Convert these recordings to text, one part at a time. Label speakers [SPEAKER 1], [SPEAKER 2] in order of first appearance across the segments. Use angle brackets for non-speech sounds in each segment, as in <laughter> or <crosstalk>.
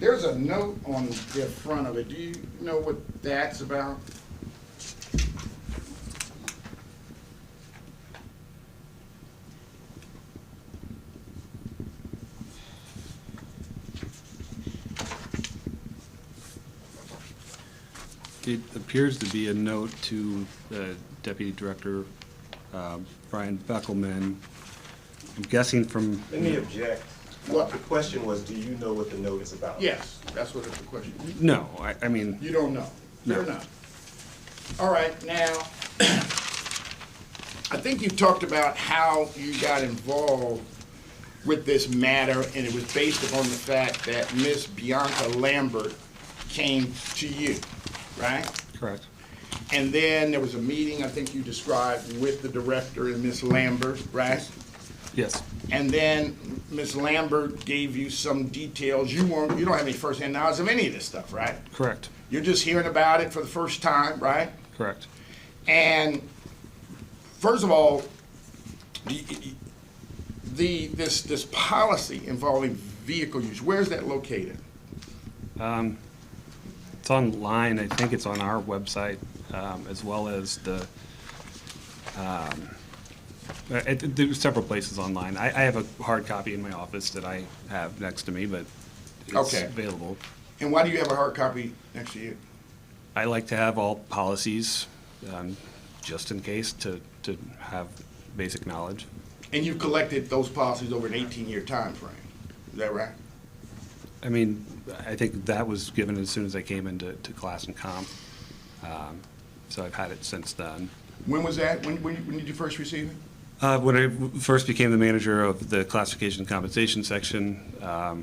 [SPEAKER 1] There's a note on the front of it. Do you know what that's about?
[SPEAKER 2] It appears to be a note to uh, Deputy Director um, Brian Beckelman. I'm guessing from,
[SPEAKER 3] Let me object.
[SPEAKER 1] What?
[SPEAKER 3] The question was, do you know what the note is about?
[SPEAKER 1] Yes, that's what it's a question.
[SPEAKER 2] no, I, I mean,
[SPEAKER 1] You don't know. Fair
[SPEAKER 2] Mm-hmm. No.
[SPEAKER 1] enough. All right, now, <clears throat> I think you talked about how you got involved with this matter, and it was based upon the fact that Miss Bianca Lambert came to you, right?
[SPEAKER 2] correct,
[SPEAKER 1] And then there was a meeting, I think you described, with the director and Miss Lambert, right?
[SPEAKER 2] yes,
[SPEAKER 1] And then Miss Lambert gave you some details. You weren't, you don't have any firsthand knowledge of any of this stuff, right?
[SPEAKER 2] correct,
[SPEAKER 1] You're just hearing about it for the first time, right?
[SPEAKER 2] correct.
[SPEAKER 1] And first of all, the, the this this policy involving vehicle use, where's that located?
[SPEAKER 2] It's online, I think it's on our website, um, as well as the, um, uh, it- it- there's several places online. I, I have a hard copy in my office that I have next to me, but it's
[SPEAKER 1] Okay.
[SPEAKER 2] available.
[SPEAKER 1] And why do you have a hard copy next to you?
[SPEAKER 2] I like to have all policies, um, just in case, to, to have basic knowledge.
[SPEAKER 1] And you've collected those policies over an 18-year time frame. Is that right?
[SPEAKER 2] I mean, I think that was given as soon as I came into, to class and comp. Um, So I've had it since then.
[SPEAKER 1] When was that? When, when, when did you first receive it?
[SPEAKER 2] Uh, When I w- first became the manager of the classification and compensation section, um,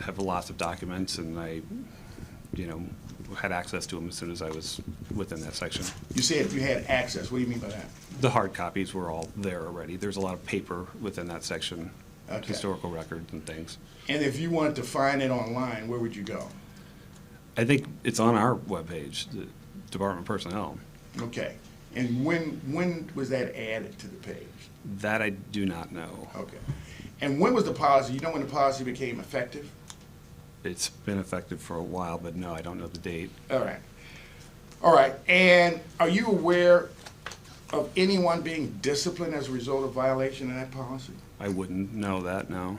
[SPEAKER 2] have lots of documents, and I, you know, had access to them as soon as I was within that section.
[SPEAKER 1] You said you had access. What do you mean by that?
[SPEAKER 2] The hard copies were all there already. There's a lot of paper within that section,
[SPEAKER 1] Okay.
[SPEAKER 2] historical records and things.
[SPEAKER 1] And if you wanted to find it online, where would you go?
[SPEAKER 2] I think it's on our webpage, the Department of Personnel.
[SPEAKER 1] Okay. And when, when was that added to the page?
[SPEAKER 2] That I do not know.
[SPEAKER 1] Okay. And when was the policy, you know when the policy became effective?
[SPEAKER 2] It's been effective for a while, but no, I don't know the date.
[SPEAKER 1] All right. All right, and are you aware of anyone being disciplined as a result of violation of that policy?
[SPEAKER 2] I wouldn't know that, no.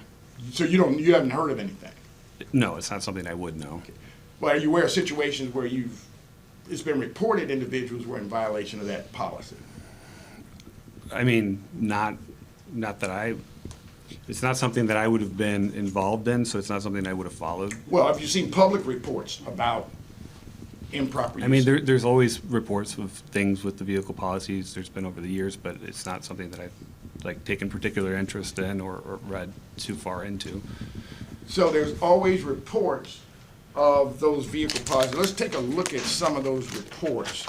[SPEAKER 1] So you don't, you haven't heard of anything?
[SPEAKER 2] No, it's not something I would know.
[SPEAKER 1] Well, are you aware of situations where you've, it's been reported individuals were in violation of that policy?
[SPEAKER 2] I mean, not, not that I, it's not something that I would have been involved in, so it's not something I would have followed.
[SPEAKER 1] Well, have you seen public reports about improper use?
[SPEAKER 2] I mean, there, there's always reports of things with the vehicle policies there's been over the years, but it's not something that I've, like, taken particular interest in or, or read too far into.
[SPEAKER 1] So there's always reports of those vehicle policies. Let's take a look at some of those reports.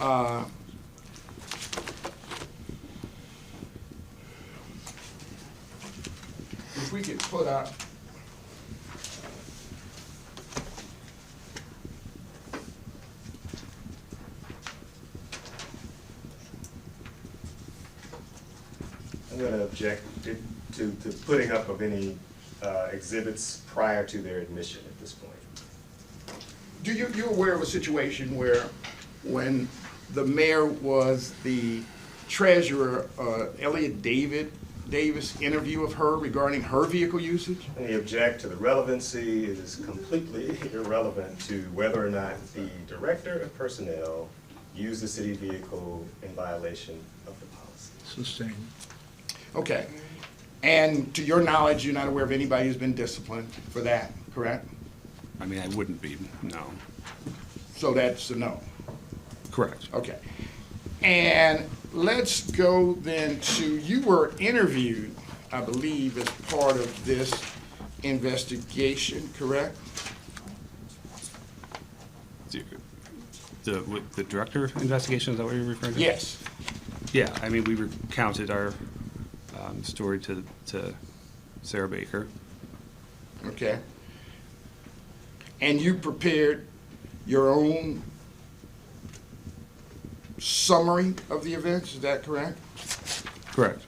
[SPEAKER 1] Uh, If we could put up.
[SPEAKER 3] I'm going to object to, to to putting up of any uh, exhibits prior to their admission at this point.
[SPEAKER 1] Do you, you aware of a situation where, when the mayor was the treasurer, uh, Elliot David, Davis interview of her regarding her vehicle usage?
[SPEAKER 3] Let me object to the relevancy. It is completely irrelevant to whether or not the Director of Personnel used the city vehicle in violation of the policy.
[SPEAKER 4] Sustained.
[SPEAKER 1] Okay. And to your knowledge, you're not aware of anybody who's been disciplined for that, correct?
[SPEAKER 2] I mean, I wouldn't be, no.
[SPEAKER 1] So that's a no.
[SPEAKER 2] Correct.
[SPEAKER 1] Okay. And let's go then to, you were interviewed, I believe, as part of this investigation, correct?
[SPEAKER 2] The, with the director investigation, is that what you're referring to?
[SPEAKER 1] Yes.
[SPEAKER 2] Yeah, I mean, we recounted our um, story to, to Sarah Baker.
[SPEAKER 1] Okay. And you prepared your own summary of the events, is that correct?
[SPEAKER 2] Correct.